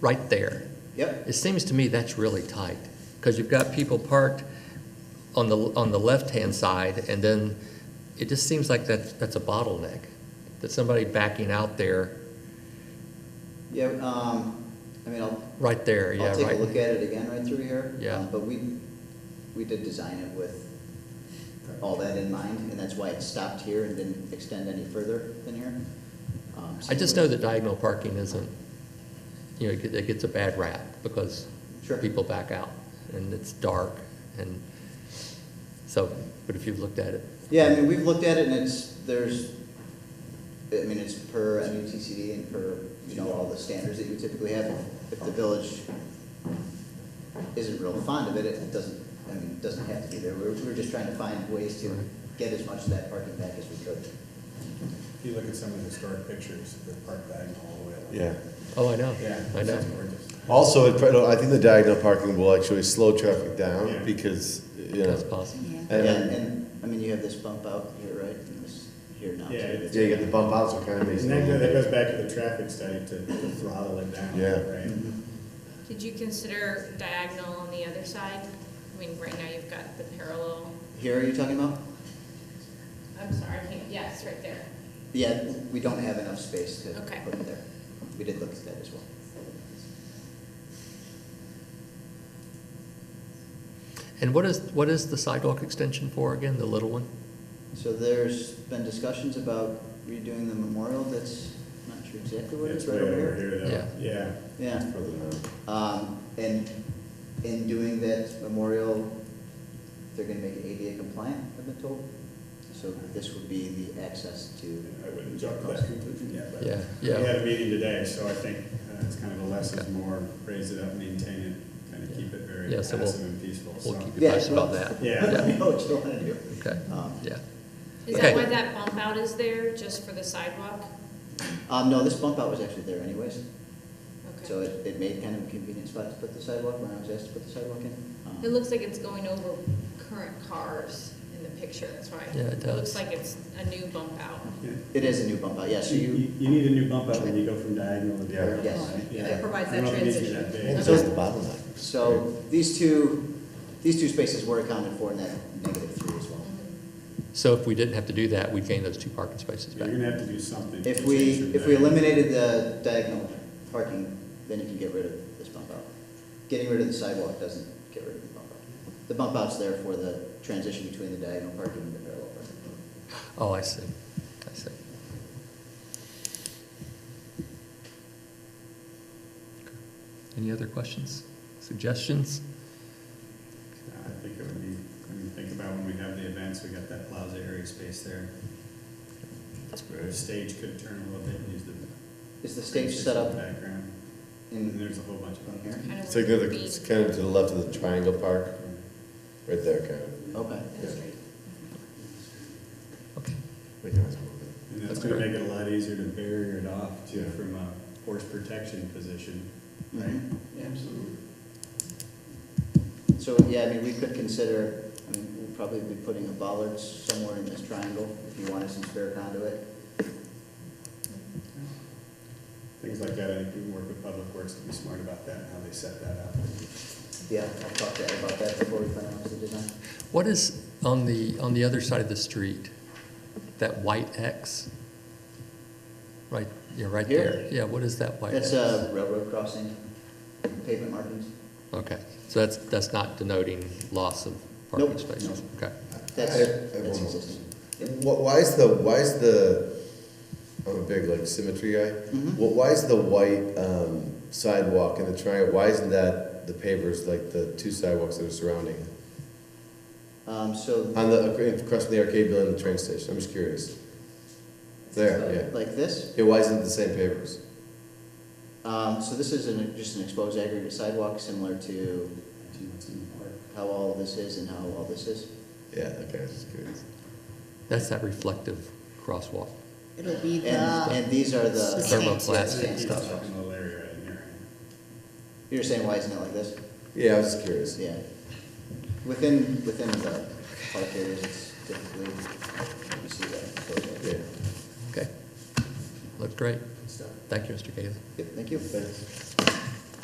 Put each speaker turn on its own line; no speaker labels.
right there.
Yep.
It seems to me that's really tight, because you've got people parked on the, on the left-hand side, and then it just seems like that, that's a bottleneck, that somebody backing out there,
Yeah, um, I mean, I'll,
right there, yeah,
I'll take a look
right.
at it again right through here.
Yeah.
Um, But we, we did design it with all that in mind, and that's why it stopped here and didn't extend any further than here. Um, so
I just know that diagonal parking isn't, you know, it get- it gets a bad rap, because
Sure.
people back out, and it's dark, and so, but if you've looked at it.
Yeah, I mean, we've looked at it and it's, there's, I mean, it's per MUTCD and per, you know, all the standards that you typically have. If the village isn't real fond of it, it doesn't, I mean, it doesn't have to be there. We're, we're just trying to find ways to get as much of that parking back as we could.
If you look at some of the historic pictures, they're parked diagonal all the way up.
Yeah.
Oh, I know,
Yeah.
I know.
it's gorgeous.
Also, it probably- I think the diagonal parking will actually slow traffic down
Yeah.
because, you know.
That's possible.
and-
Yeah,
and-
and, I mean, you have this bump out here, right, and this here now. too.
Yeah, it's-
Yeah, you get the bump outs are kind of
And
amazing.
that goes, that goes back to the traffic study to to throttle it down,
Yeah.
right?
Mm-hmm.
Did you consider diagonal on the other side? I mean, right now you've got the parallel,
Here, are you talking about?
I'm sorry, I can't- yes, right there.
Yeah, we don't have enough space to
Okay.
put it there. We did look at that as well.
And what is, what is the sidewalk extension for again, the little one?
So there's been discussions about redoing the memorial that's, I'm not sure exactly what it
It's
is,
way
right over
over
here.
here
Yeah.
though, yeah.
Yeah,
Further down.
um, and in doing that memorial, they're gonna make it ADA compliant, I've been told. So this would be the access to,
I wouldn't jump to that conclusion yet, but.
Yeah, yeah.
We had a meeting today, so I think uh, it's kind of a less is more, raise it up, maintain it, kind of keep it very
Yeah, so we'll-
passive and peaceful,
We'll
so.
keep you
Yeah,
posted
well-
about that.
Yeah,
let me know what you wanna do.
Okay,
Um,
yeah.
Is that
Okay.
why that bump out is there, just for the sidewalk?
Um, no, this bump out was actually there anyways, so
Okay.
it, it made kind of a convenient spot to put the sidewalk when I was asked to put the sidewalk in. Um,
It looks like it's going over current cars in the picture, that's why.
Yeah, it does.
Looks like it's a new bump out.
Yeah.
It is a new bump out, yeah, so
You,
you,
you- you need a new bump up when you go from diagonal to
Yeah.
diagonal.
Yes.
right?
Yeah,
Yeah.
that
provides
I don't
that
know if it needs to be
transition.
that big.
And it's always the bottleneck.
so these two, these two spaces were accounted for in that negative three as well.
So if we didn't have to do that, we'd gain those two parking spaces
You're
back.
gonna have to do something.
If
to
we,
change your
if we
diagonal.
eliminated the diagonal parking, then you can get rid of this bump out. Getting rid of the sidewalk doesn't get rid of the bump out. The bump out's there for the transition between the diagonal parking and the parallel parking.
Oh, I see, I see. Any other questions, suggestions?
I think it would be, I mean, think about when we have the events, we got that plaza area space there. That's where the stage could turn a little bit and use the.
Is the stage set up
Background, and
in,
there's a whole bunch of
in
them
here?
here.
Kind of
It's like the other-
neat.
it's kind of to the left of the triangle park, right there, kind of.
Okay.
That's great.
Okay,
We can always move it.
And that's
That's
gonna
great.
make it a lot easier to barrier it off too
Yeah.
from a horse protection position, right?
Mhm. Yeah, Absolutely. So, yeah, I mean, we could consider, I mean, we'll probably be putting a bollard somewhere in this triangle if you wanted some spare conduit.
Things like that, I think we can work with Public Works to be smart about that, and how they set that up.
Yeah, I'll talk to Ed about that before we finalize the design.
what is on the, on the other side of the street, that white X? Right, yeah, right
Here?
there, yeah, what is that white X?
That's uh, a railroad crossing, pavement markings.
Okay, so that's, that's not denoting loss of parking
Nope.
spaces? Okay,
That's,
I have- I have
that's
one more.
existing.
Wh- Why is the, why is the, I'm a big like symmetry guy.
Mhm.
Wh- Why is the white um, sidewalk in the triangle, why isn't that the pavers, like the two sidewalks that are surrounding? it?
Um, so,
On the, across from the arcade building and the train station, I'm just curious. There, yeah.
like this,
Yeah, why isn't it the same pavers?
um, so this is an, just an exposed aggregate sidewalk, similar to
Do what's in the park.
how all of this is and how all this is.
Yeah, okay, I was just curious.
that's that reflective crosswalk.
It'll be
And,
the,
and these are the.
Thermoplastic
Yeah,
Keep
stuff.
that little area right in there.
You're saying, why isn't it like this?
Yeah, I was just curious.
Yeah. Within, within the park areas, it's typically, you see that exposed
Yeah,
aggregate
Okay, looks great.
stuff.
Thank you, Mr. Gailey.
Yep, thank you.
thanks.